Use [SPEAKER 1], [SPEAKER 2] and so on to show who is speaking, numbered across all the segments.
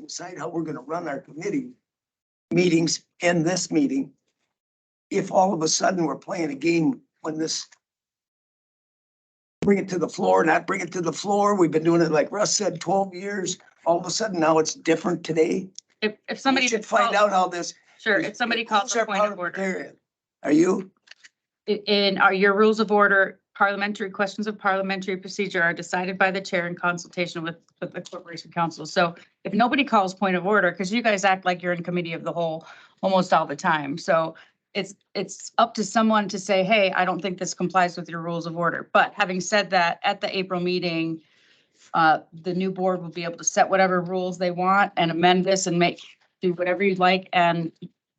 [SPEAKER 1] decide how we're gonna run our committee meetings and this meeting. If all of a sudden we're playing a game when this bring it to the floor, not bring it to the floor, we've been doing it like Russ said, twelve years, all of a sudden now it's different today.
[SPEAKER 2] If, if
[SPEAKER 1] We
[SPEAKER 2] somebody.
[SPEAKER 1] should find
[SPEAKER 2] calls-
[SPEAKER 1] out how this.
[SPEAKER 2] Sure, if somebody calls
[SPEAKER 1] Who's
[SPEAKER 2] for
[SPEAKER 1] our
[SPEAKER 2] a point of
[SPEAKER 1] parliamentarian?
[SPEAKER 2] order.
[SPEAKER 1] Are you?
[SPEAKER 2] I- In our, your rules of order, parliamentary questions of parliamentary procedure are decided by the chair in consultation with, with the corporation council. So if nobody calls point of order, because you guys act like you're in committee of the whole almost all the time. So it's, it's up to someone to say, hey, I don't think this complies with your rules of order. But having said that, at the April meeting, uh, the new board will be able to set whatever rules they want and amend this and make, do whatever you'd like. And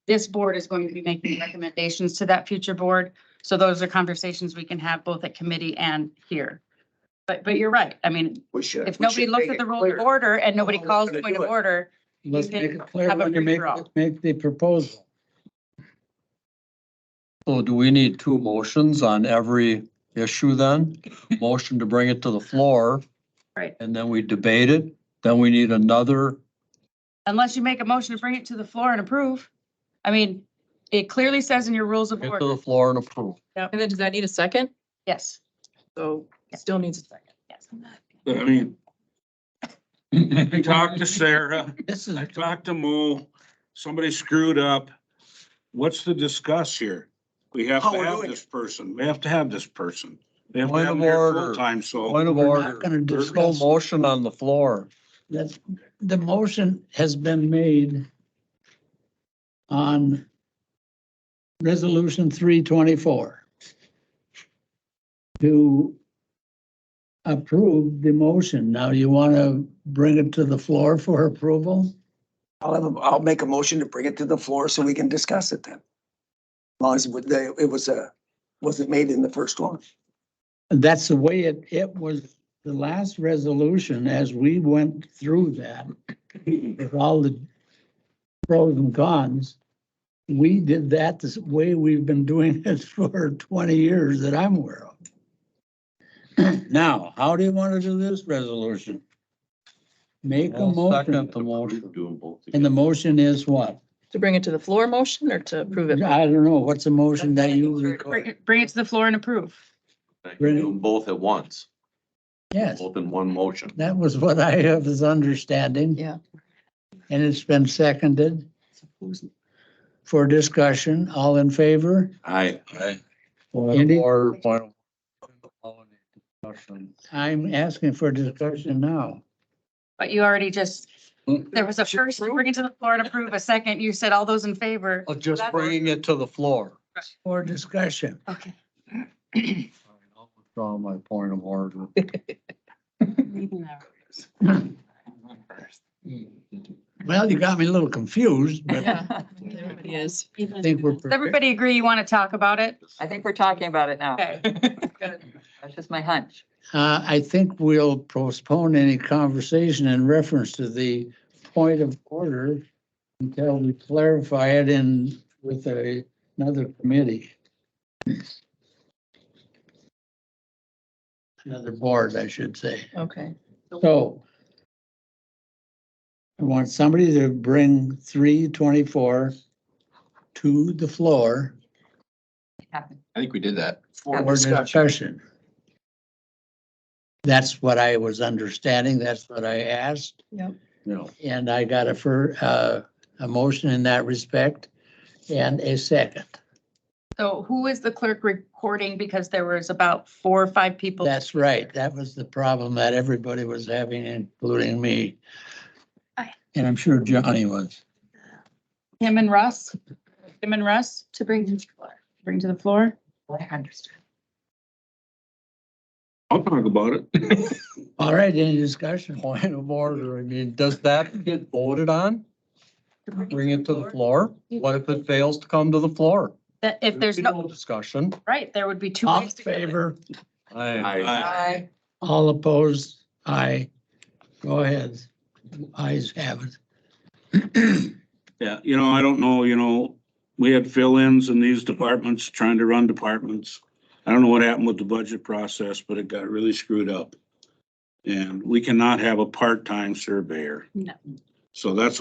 [SPEAKER 2] this board is going to be making recommendations to that future board. So those are conversations we can have both at committee and here. But, but you're right. I mean,
[SPEAKER 1] We should.
[SPEAKER 2] if
[SPEAKER 1] we
[SPEAKER 2] nobody
[SPEAKER 1] should
[SPEAKER 2] looks
[SPEAKER 1] make
[SPEAKER 2] at
[SPEAKER 1] it
[SPEAKER 2] the rule
[SPEAKER 1] clear.
[SPEAKER 2] of order and nobody
[SPEAKER 1] we're
[SPEAKER 2] calls
[SPEAKER 1] gonna
[SPEAKER 2] point
[SPEAKER 1] do
[SPEAKER 2] of
[SPEAKER 1] it.
[SPEAKER 2] order,
[SPEAKER 3] Let's
[SPEAKER 2] You
[SPEAKER 3] make
[SPEAKER 2] can
[SPEAKER 3] it clear
[SPEAKER 2] have a
[SPEAKER 3] when you make,
[SPEAKER 2] redraw.
[SPEAKER 3] make the proposal. So do we need two motions on every issue then? Motion to bring it to the floor.
[SPEAKER 2] Right.
[SPEAKER 3] And then we debate it, then we need another,
[SPEAKER 2] unless you make a motion to bring it to the floor and approve. I mean, it clearly says in your rules of
[SPEAKER 3] bring it to the
[SPEAKER 2] order,
[SPEAKER 3] floor and approve.
[SPEAKER 4] And then does that need a second?
[SPEAKER 2] yes,
[SPEAKER 4] So it still needs a second.
[SPEAKER 2] yes.
[SPEAKER 5] I mean, I talked to Sarah,
[SPEAKER 3] This
[SPEAKER 5] I talked to Mo, somebody screwed up. What's to discuss here? We have
[SPEAKER 1] How
[SPEAKER 5] to
[SPEAKER 1] Oh, we're
[SPEAKER 5] have
[SPEAKER 1] doing
[SPEAKER 5] this person, we have to have this person. They have to
[SPEAKER 3] Point
[SPEAKER 5] have
[SPEAKER 3] of
[SPEAKER 5] them here
[SPEAKER 3] order.
[SPEAKER 5] full time, so
[SPEAKER 3] Point of
[SPEAKER 6] We're not
[SPEAKER 3] order.
[SPEAKER 6] gonna
[SPEAKER 3] There's no
[SPEAKER 6] discuss.
[SPEAKER 3] motion on the floor.
[SPEAKER 6] that the motion has been made on resolution three twenty-four to approve the motion. Now, you want to bring it to the floor for approval?
[SPEAKER 1] I'll have, a- I'll make a motion to bring it to the floor so we can discuss it then. As long as it would- they- it was a, wasn't made in the first one.
[SPEAKER 6] And that's the way it, it was, the last resolution, as we went through that, with all the pros and cons, we did that the way we've been doing it for twenty years that I'm aware of. Now, how do you want to do this resolution? Make a
[SPEAKER 3] I'll Second the
[SPEAKER 6] motion,
[SPEAKER 3] motion.
[SPEAKER 6] and the motion is what?
[SPEAKER 4] To bring it to the floor motion or to approve it?
[SPEAKER 6] I don't know, what's the motion that you,
[SPEAKER 2] Bring it- bring it to the floor and approve.
[SPEAKER 7] Like,
[SPEAKER 6] Really?
[SPEAKER 7] do them both at once,
[SPEAKER 6] yes,
[SPEAKER 7] both in one motion.
[SPEAKER 6] that was what I have as understanding.
[SPEAKER 4] Yeah.
[SPEAKER 6] And it's been seconded for discussion, all in favor?
[SPEAKER 7] I,
[SPEAKER 3] Point
[SPEAKER 6] Andy?
[SPEAKER 3] of order, point of. Discussion.
[SPEAKER 6] I'm asking for discussion now.
[SPEAKER 2] But you already just,
[SPEAKER 3] Mm.
[SPEAKER 2] there was a first, bring it to the floor and approve. A second, you said all those in favor.
[SPEAKER 3] Of Just bringing it to the floor.
[SPEAKER 6] For discussion.
[SPEAKER 2] Okay.
[SPEAKER 3] All right, I'll Withdraw my point of order.
[SPEAKER 6] Well, you got me a little confused, but I
[SPEAKER 4] Everybody is.
[SPEAKER 6] think we're.
[SPEAKER 2] Does everybody agree you want to talk about it?
[SPEAKER 8] I think we're talking about it now.
[SPEAKER 2] Okay.
[SPEAKER 8] That's just my hunch.
[SPEAKER 6] Uh, I think we'll postpone any conversation in reference to the point of order until we clarify it in with a- another committee. Another board, I should say.
[SPEAKER 4] Okay.
[SPEAKER 6] So I want somebody to bring three twenty-four to the floor
[SPEAKER 7] I think we did that.
[SPEAKER 1] For
[SPEAKER 6] for discussion. That's what I was understanding. That's what I asked.
[SPEAKER 4] Yep.
[SPEAKER 3] Yeah.
[SPEAKER 6] And I got a fir, uh, a motion in that respect and a second.
[SPEAKER 2] So who is the clerk recording? Because there was about four or five people.
[SPEAKER 6] That's right. That was the problem that everybody was having, including me.
[SPEAKER 2] Aye.
[SPEAKER 6] And I'm sure Johnny was.
[SPEAKER 2] Him and Russ? Him and Russ? To bring to the floor. Bring to the floor?
[SPEAKER 8] I understand.
[SPEAKER 5] I'll talk about it.
[SPEAKER 6] All right, any discussion?
[SPEAKER 3] Point of order, I mean, does that get voted on? Bring it to the floor? What if it fails to come to the floor?
[SPEAKER 2] That if there's no,
[SPEAKER 3] Discussion.
[SPEAKER 2] right, there would be two.
[SPEAKER 6] All in
[SPEAKER 2] ways to go.
[SPEAKER 6] favor?
[SPEAKER 3] I,
[SPEAKER 7] I,
[SPEAKER 5] Uh,
[SPEAKER 8] I
[SPEAKER 6] All opposed? Aye. Go ahead. Ayes have it.
[SPEAKER 5] Yeah, you know, I don't know, you know, we had fill-ins in these departments, trying to run departments. I don't know what happened with the budget process, but it got really screwed up. And we cannot have a part-time surveyor.
[SPEAKER 2] No.
[SPEAKER 5] So that's